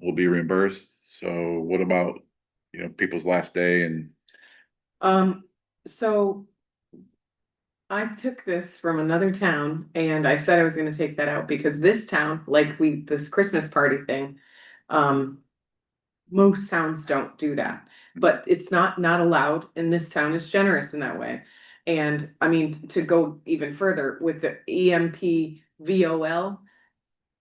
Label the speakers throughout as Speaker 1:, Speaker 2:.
Speaker 1: will be reimbursed. So what about, you know, people's last day and
Speaker 2: Um, so. I took this from another town and I said I was gonna take that out because this town, like we, this Christmas party thing, um. Most towns don't do that, but it's not not allowed and this town is generous in that way. And I mean, to go even further with the E EMP VOL.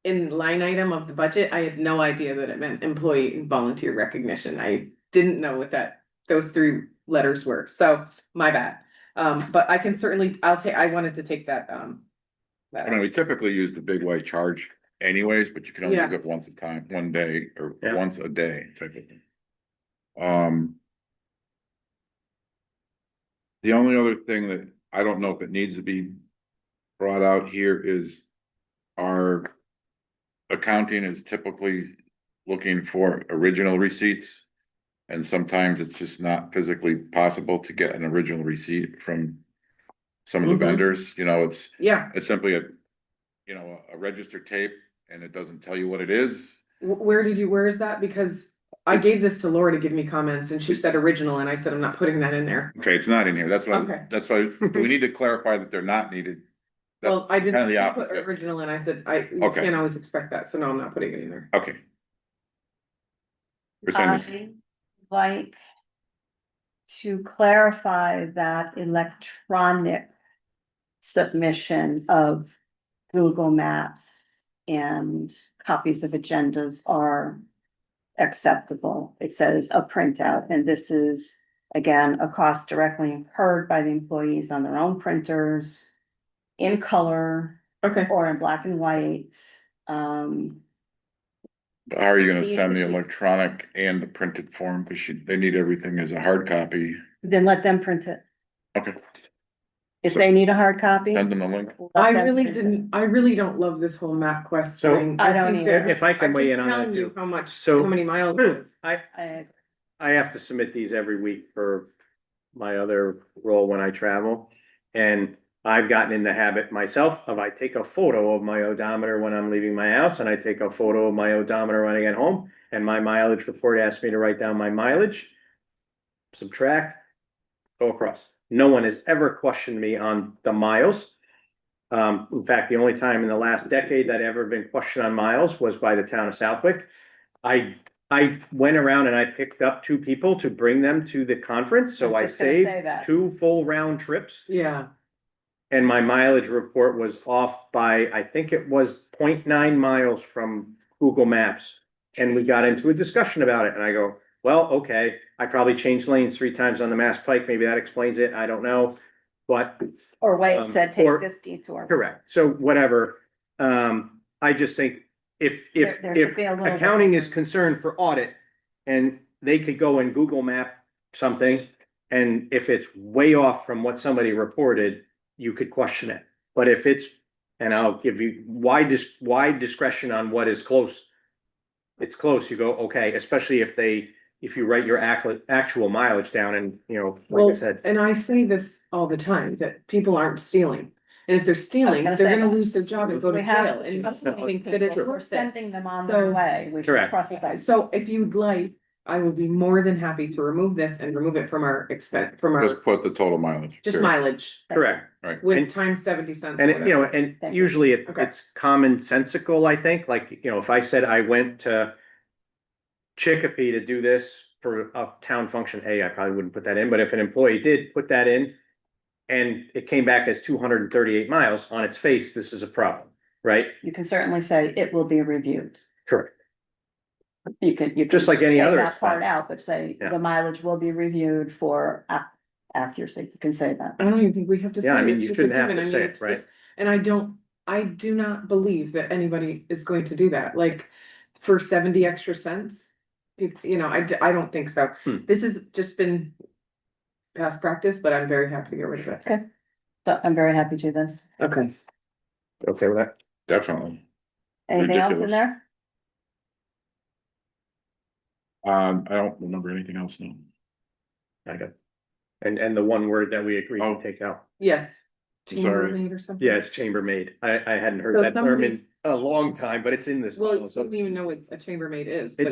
Speaker 2: In line item of the budget, I had no idea that it meant employee and volunteer recognition. I didn't know what that those three letters were, so my bad. Um, but I can certainly, I'll take, I wanted to take that, um. that
Speaker 1: I mean, we typically use the big white charge anyways, but you can only
Speaker 2: Yeah.
Speaker 1: pick up once a time, one day or
Speaker 3: Yeah.
Speaker 1: once a day type of thing. Um. The only other thing that I don't know if it needs to be brought out here is our accounting is typically looking for original receipts. And sometimes it's just not physically possible to get an original receipt from some of the
Speaker 2: Mhm.
Speaker 1: vendors, you know, it's
Speaker 2: Yeah,
Speaker 1: it's simply a, you know, a registered tape and it doesn't tell you what it is.
Speaker 2: wh- where did you, where is that? Because I gave this to Laura to give me comments and she said original and I said, I'm not putting that in there.
Speaker 1: Okay, it's not in here. That's
Speaker 2: Okay.
Speaker 1: why, that's why we need to clarify that they're not needed. That's
Speaker 2: Well, I
Speaker 1: kinda the
Speaker 2: didn't put
Speaker 1: opposite.
Speaker 2: original and I said, I, you
Speaker 1: Okay.
Speaker 2: can't always expect that, so no, I'm not putting it in there.
Speaker 1: Okay. We're saying this-
Speaker 4: I like to clarify that electronic submission of Google Maps and copies of agendas are acceptable. It says a printout, and this is, again, a cost directly incurred by the employees on their own printers in color
Speaker 2: Okay,
Speaker 4: or in black and white. Um,
Speaker 1: How are you gonna send the electronic and the printed form? Cause you- they need everything as a hard copy.
Speaker 4: then let them print it.
Speaker 1: Okay,
Speaker 4: If they need a hard copy.
Speaker 1: send them a link.
Speaker 4: let
Speaker 2: I
Speaker 4: them
Speaker 2: really
Speaker 4: print it.
Speaker 2: didn't, I really don't love this whole map quest
Speaker 3: So-
Speaker 2: thing.
Speaker 4: I don't
Speaker 2: think
Speaker 4: either.
Speaker 2: that-
Speaker 3: If I can
Speaker 2: I'm
Speaker 3: weigh
Speaker 2: just
Speaker 3: in on that
Speaker 2: telling you
Speaker 3: too.
Speaker 2: How much,
Speaker 3: So-
Speaker 2: how many miles it is.
Speaker 3: I,
Speaker 4: I,
Speaker 3: I have to submit these every week for my other role when I travel. And I've gotten in the habit myself of I take a photo of my odometer when I'm leaving my house and I take a photo of my odometer when I get home. And my mileage report asks me to write down my mileage, subtract, go across. No one has ever questioned me on the miles. Um, in fact, the only time in the last decade that I ever been questioned on miles was by the town of Southwick. I I went around and I picked up two people to bring them to the conference, so I
Speaker 4: was gonna
Speaker 3: saved
Speaker 4: say that.
Speaker 3: two full round trips.
Speaker 2: Yeah,
Speaker 3: And my mileage report was off by, I think it was 0.9 miles from Google Maps. And we got into a discussion about it and I go, well, okay, I probably changed lanes three times on the Mass Pike, maybe that explains it, I don't know. But
Speaker 4: or
Speaker 3: Um,
Speaker 4: wait, said take
Speaker 3: or-
Speaker 4: this detour.
Speaker 3: Correct, so whatever, um, I just think if, if,
Speaker 4: There- there could
Speaker 3: if
Speaker 4: be a little bit-
Speaker 3: accounting is concerned for audit. And they could go and Google map something, and if it's way off from what somebody reported, you could question it. But if it's, and I'll give you wide dis- wide discretion on what is close. It's close, you go, okay, especially if they, if you write your actual, actual mileage down and, you know, like
Speaker 2: Well,
Speaker 3: I said.
Speaker 2: and I say this all the time, that people aren't stealing. And if they're stealing,
Speaker 4: gonna
Speaker 2: they're
Speaker 4: say
Speaker 2: gonna
Speaker 4: that.
Speaker 2: lose their job and go to
Speaker 4: We have
Speaker 2: jail and
Speaker 4: trust
Speaker 3: no,
Speaker 2: think
Speaker 4: people.
Speaker 2: that it's
Speaker 4: We're
Speaker 2: worth it.
Speaker 4: sending them on their
Speaker 2: So-
Speaker 4: way. We should
Speaker 3: Correct.
Speaker 4: cross
Speaker 2: Okay,
Speaker 4: that.
Speaker 2: So if you'd like, I would be more than happy to remove this and remove it from our expense, from
Speaker 1: Just
Speaker 2: our,
Speaker 1: put the total mileage.
Speaker 2: just
Speaker 1: Sure.
Speaker 2: mileage
Speaker 3: Correct.
Speaker 2: with
Speaker 3: And-
Speaker 2: times seventy cents.
Speaker 3: And it- you know, and
Speaker 4: Thank you.
Speaker 3: usually it,
Speaker 2: Okay.
Speaker 3: it's commonsensical, I think, like, you know, if I said I went to. Chicopee to do this for a town function, hey, I probably wouldn't put that in, but if an employee did put that in. And it came back as two hundred and thirty-eight miles on its face, this is a problem, right?
Speaker 4: You can certainly say it will be reviewed.
Speaker 3: Correct.
Speaker 4: You can, you.
Speaker 3: Just
Speaker 4: can
Speaker 3: like any
Speaker 4: take
Speaker 3: other
Speaker 4: that Part
Speaker 3: expense.
Speaker 4: out, but say
Speaker 3: Yeah.
Speaker 4: the mileage will be reviewed for ac- accuracy. You can say that.
Speaker 2: I don't even think we have to.
Speaker 3: Yeah, I
Speaker 2: say it,
Speaker 3: mean,
Speaker 2: it's
Speaker 3: you
Speaker 2: just a
Speaker 3: shouldn't have
Speaker 2: given,
Speaker 3: to
Speaker 2: I
Speaker 3: say
Speaker 2: mean,
Speaker 3: it,
Speaker 2: it's
Speaker 3: right.
Speaker 2: just- And I don't, I do not believe that anybody is going to do that, like, for seventy extra cents. You, you know, I, d- I don't think so.
Speaker 3: Hmm.
Speaker 2: This has just been past practice, but I'm very happy to get rid of it.
Speaker 4: So I'm very happy to do this.
Speaker 2: Okay.
Speaker 3: Okay with that?
Speaker 1: Definitely.
Speaker 4: Anything else in
Speaker 1: Ridiculous.
Speaker 4: there?
Speaker 1: Um, I don't remember anything else now.
Speaker 3: I got. And, and the one word that we agreed
Speaker 1: Oh.
Speaker 3: to take out,
Speaker 2: Yes.
Speaker 1: I'm sorry.
Speaker 2: Chambermaid or something?
Speaker 3: yes, chambermaid, I, I hadn't
Speaker 2: So
Speaker 3: heard that term
Speaker 2: somebody's-
Speaker 3: in a long time, but it's in this.
Speaker 2: Well, you
Speaker 3: policy.
Speaker 2: don't even know what a chambermaid is.
Speaker 3: It-